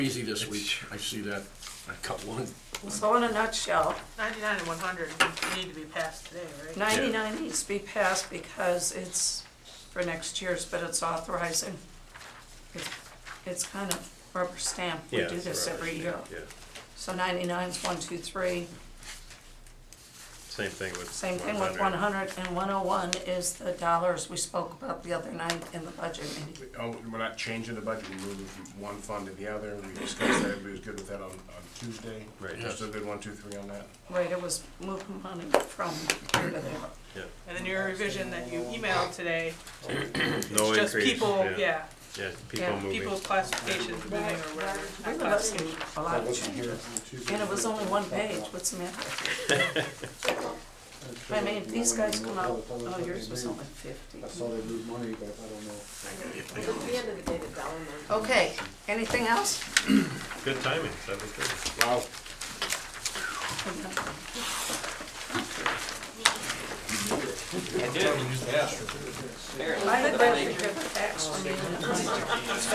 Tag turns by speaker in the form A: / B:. A: Easy this week, I see that, I cut one.
B: So in a nutshell,
C: 99 and 100 need to be passed today, right?
B: 99 needs to be passed because it's for next year's, but it's authorizing. It- It's kind of rubber stamp, we
D: Yeah,
B: do
D: it's
B: this
D: rubber
B: every year.
D: stamp, Yeah,
B: So 99 is one, two, three.
D: same thing with.
B: Same thing with 100 and 101 is the dollars we spoke about the other night in the budget meeting.
E: Oh, we're not changing the budget, we moving from one fund to the other, we discussed that, everybody was good with that on, on Tuesday.
D: Right.
E: Just a good one, two, three on that.
B: Right, it was moving money from here to there.
D: Yeah,
C: And then your revision that you emailed today,
D: no
C: it's just
D: increase,
C: people, yeah,
D: Yeah,
B: Yeah,
D: people moving.
C: people's classifications moving or whatever.
B: We were looking at a lot of changes. And it was only one page, what's the matter? I mean, these guys come out, oh, yours was only fifty.
F: I saw they moved money, but I don't know.
G: But at the end of the day, the dollar amount.
B: Okay, anything else?
D: Good timing, seven thirty.
E: Wow,
B: I would rather give a fax when you-